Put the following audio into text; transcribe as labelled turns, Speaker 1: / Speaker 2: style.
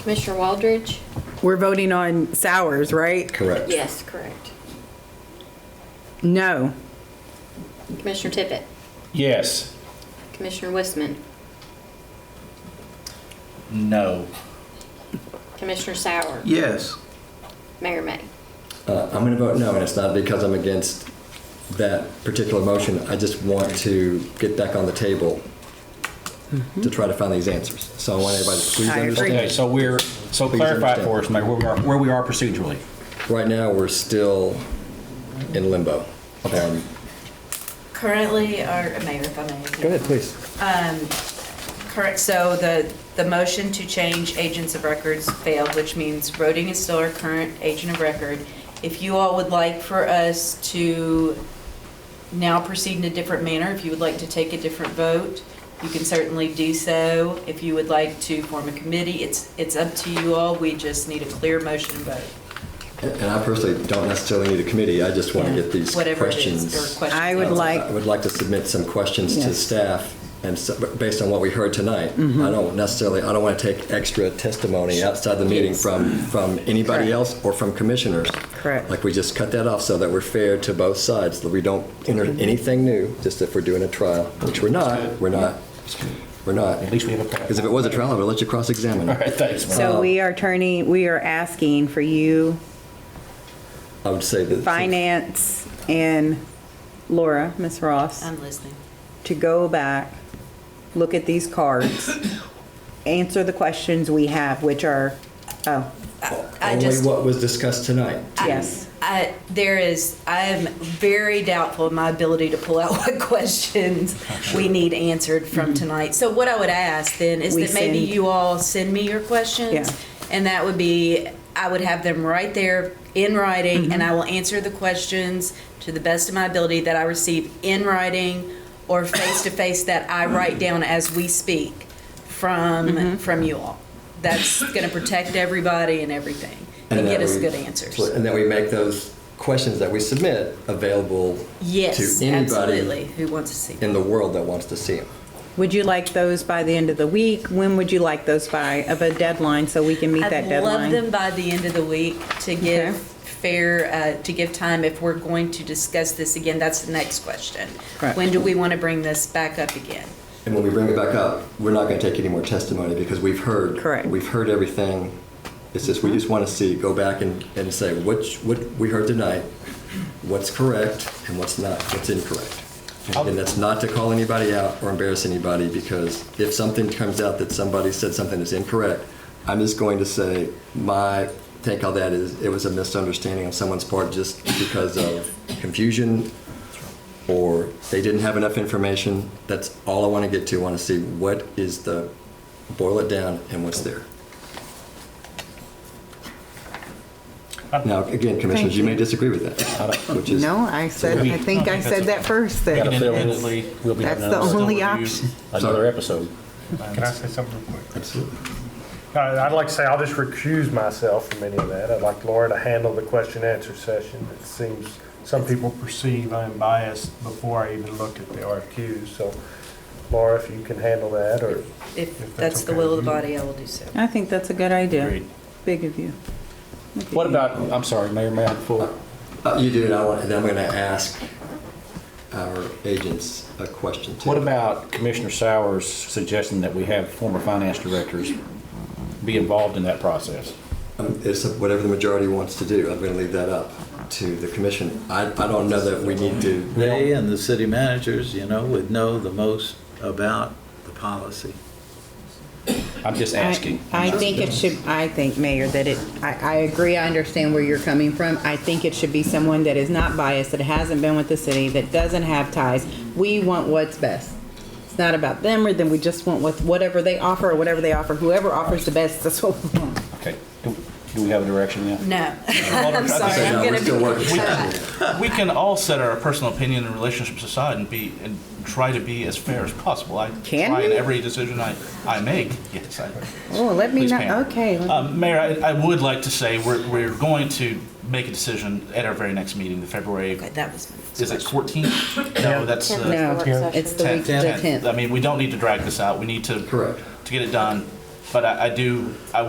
Speaker 1: Commissioner Waldridge?
Speaker 2: We're voting on Sowers, right?
Speaker 3: Correct.
Speaker 1: Yes, correct.
Speaker 2: No.
Speaker 1: Commissioner Tippett?
Speaker 4: Yes.
Speaker 1: Commissioner Wiseman?
Speaker 4: No.
Speaker 1: Commissioner Sauer?
Speaker 4: Yes.
Speaker 1: Mayor May?
Speaker 3: Uh, I'm going to vote no, and it's not because I'm against that particular motion. I just want to get back on the table to try to find these answers. So I want everybody to
Speaker 2: Mm-hmm.
Speaker 3: please
Speaker 2: I agree.
Speaker 3: understand.
Speaker 4: Okay, so we're, so
Speaker 3: Please
Speaker 4: clarify
Speaker 3: understand.
Speaker 4: for us, Mayor, where we are, where we are procedurally.
Speaker 3: Right now, we're still in limbo. Um,
Speaker 5: Currently, or Mayor, if I may. Um,
Speaker 3: Go ahead, please.
Speaker 5: Correct, so the, the motion to change agents of records failed, which means Roding is still our current agent of record. If you all would like for us to now proceed in a different manner, if you would like to take a different vote, you can certainly do so. If you would like to form a committee, it's, it's up to you all, we just need a clear motion and vote.
Speaker 3: And I personally don't necessarily need a committee. I just want to get these
Speaker 5: Whatever it is,
Speaker 3: questions.
Speaker 5: or questions.
Speaker 2: I would like-
Speaker 3: Uh, I would like to submit some questions to
Speaker 2: Yes. Mm-hmm.
Speaker 3: staff and so- based on what we heard tonight. I don't necessarily, I don't want to take extra testimony outside the meeting from, from anybody
Speaker 2: Correct.
Speaker 3: else or from commissioners.
Speaker 2: Correct.
Speaker 3: Like we just cut that off so that we're fair to both sides, that we don't enter
Speaker 2: Mm-hmm.
Speaker 3: anything new, just if we're doing a trial, which we're not, we're not, we're not.
Speaker 4: At least we have a.
Speaker 3: Because if it was a trial, I would let you cross-examine.
Speaker 4: All right, thanks, Mayor.
Speaker 5: Oh.
Speaker 2: So
Speaker 3: Uh,
Speaker 2: we are turning, we are asking for you,
Speaker 3: I would say that.
Speaker 2: Finance and Laura, Ms. Ross,
Speaker 5: I'm listening.
Speaker 2: to go back, look at these cards, answer the questions we have, which are, oh,
Speaker 5: I
Speaker 3: Only
Speaker 5: just-
Speaker 3: what was discussed tonight.
Speaker 2: yes.
Speaker 5: I, there is, I am very doubtful of my ability to pull out what questions we need answered from tonight. So what I would ask then is
Speaker 2: Mm-hmm. We
Speaker 5: that maybe
Speaker 2: send-
Speaker 5: you all send me your
Speaker 2: Yeah.
Speaker 5: questions. And that would be, I would have them right there in writing
Speaker 2: Mm-hmm.
Speaker 5: and I will answer the questions to the best of my ability that I receive in writing or face to face that I write down as we speak
Speaker 2: Mm-hmm.
Speaker 5: from, from you all. That's going to protect everybody and everything and
Speaker 3: that
Speaker 5: get us
Speaker 3: we-
Speaker 5: good answers.
Speaker 3: And that we make those questions that we submit available
Speaker 5: Yes,
Speaker 3: to anybody
Speaker 5: absolutely. Who wants to see?
Speaker 3: in the world that wants to see them.
Speaker 2: Would you like those by the end of the week? When would you like those by, of a deadline, so we can meet that
Speaker 5: I'd love
Speaker 2: deadline?
Speaker 5: them by the end of the week to give
Speaker 2: Okay.
Speaker 5: fair uh, to give time if we're going to discuss this again. That's the next question.
Speaker 2: Correct.
Speaker 5: When do we want to bring this back up again?
Speaker 3: And when we bring it back up, we're not going to take any more testimony because we've heard.
Speaker 2: Correct.
Speaker 3: We've heard everything. It's just, we
Speaker 5: Mm-hmm.
Speaker 3: just want to see, go back and, and say, which, what we heard tonight, what's correct and what's not, what's incorrect. And that's not to call anybody out or embarrass anybody because if something comes out that somebody said something that's incorrect, I'm just going to say, my take on that is, it was a misunderstanding on someone's part just because of confusion or they didn't have enough information. That's all I want to get to. I want to see what is the, boil it down and what's there. Now, again, commissioners, you may disagree with that, which is.
Speaker 2: No, I said, I think I said that first, that
Speaker 4: Independently, we'll be having
Speaker 2: That's the
Speaker 4: another
Speaker 2: only
Speaker 4: review,
Speaker 2: option.
Speaker 4: Another episode.
Speaker 6: Can I say something real quick?
Speaker 3: Absolutely.
Speaker 6: I- I'd like to say I'll just recuse myself from any of that. I'd like Laura to handle the question and answer session. It seems some people perceive I'm biased before I even looked at the RFQs. So Laura, if you can handle that or.
Speaker 5: If
Speaker 6: that's
Speaker 5: that's the
Speaker 6: okay.
Speaker 5: will of the body, I will do so.
Speaker 2: I think that's a good idea.
Speaker 4: Agreed.
Speaker 2: Big of you. Look at
Speaker 4: What
Speaker 2: you.
Speaker 4: about, I'm sorry, Mayor, may I have the floor?
Speaker 3: Uh, You do, and I want, and I'm going to ask our agents a question too.
Speaker 4: What about Commissioner Sowers' suggestion that we have former finance directors be involved in that process?
Speaker 3: Um, It's whatever the majority wants to do. I'm going to leave that up to the commission. I, I don't know that we need to.
Speaker 7: They and the city managers, you know, would know the most about the policy.
Speaker 4: I'm just asking.
Speaker 2: I I think it should, I think, Mayor, that it, I, I agree, I understand where you're coming from. I think it should be someone that is not biased, that hasn't been with the city, that doesn't have ties. We want what's best. It's not about them or them, we just want what, whatever they offer, or whatever they offer, whoever offers the best, that's what we want.
Speaker 4: Okay, do do we have a direction now?
Speaker 5: No, I'm
Speaker 3: I
Speaker 5: sorry.
Speaker 3: say no,
Speaker 5: I'm
Speaker 3: we're
Speaker 5: going to
Speaker 3: still
Speaker 5: be.
Speaker 3: working.
Speaker 8: we can all set our personal opinion and relationships aside and be and try to be as fair as possible. I
Speaker 2: Can
Speaker 8: try in
Speaker 2: we?
Speaker 8: every decision I, I make. Yes, I.
Speaker 2: Oh, let me
Speaker 8: Please
Speaker 2: know,
Speaker 8: can.
Speaker 2: okay. let me-
Speaker 8: Um, Mayor, I, I would like to say we're, we're going to make a decision at our very next meeting, the February.
Speaker 5: Okay, that was my next
Speaker 8: Is it
Speaker 5: question.
Speaker 8: 14th? No, that's uh, the
Speaker 2: No, it's the week, the
Speaker 8: 10th.
Speaker 2: tenth.
Speaker 8: I mean, we don't need to drag this out. We need to
Speaker 3: Correct.
Speaker 8: to get it done. But I, I do. I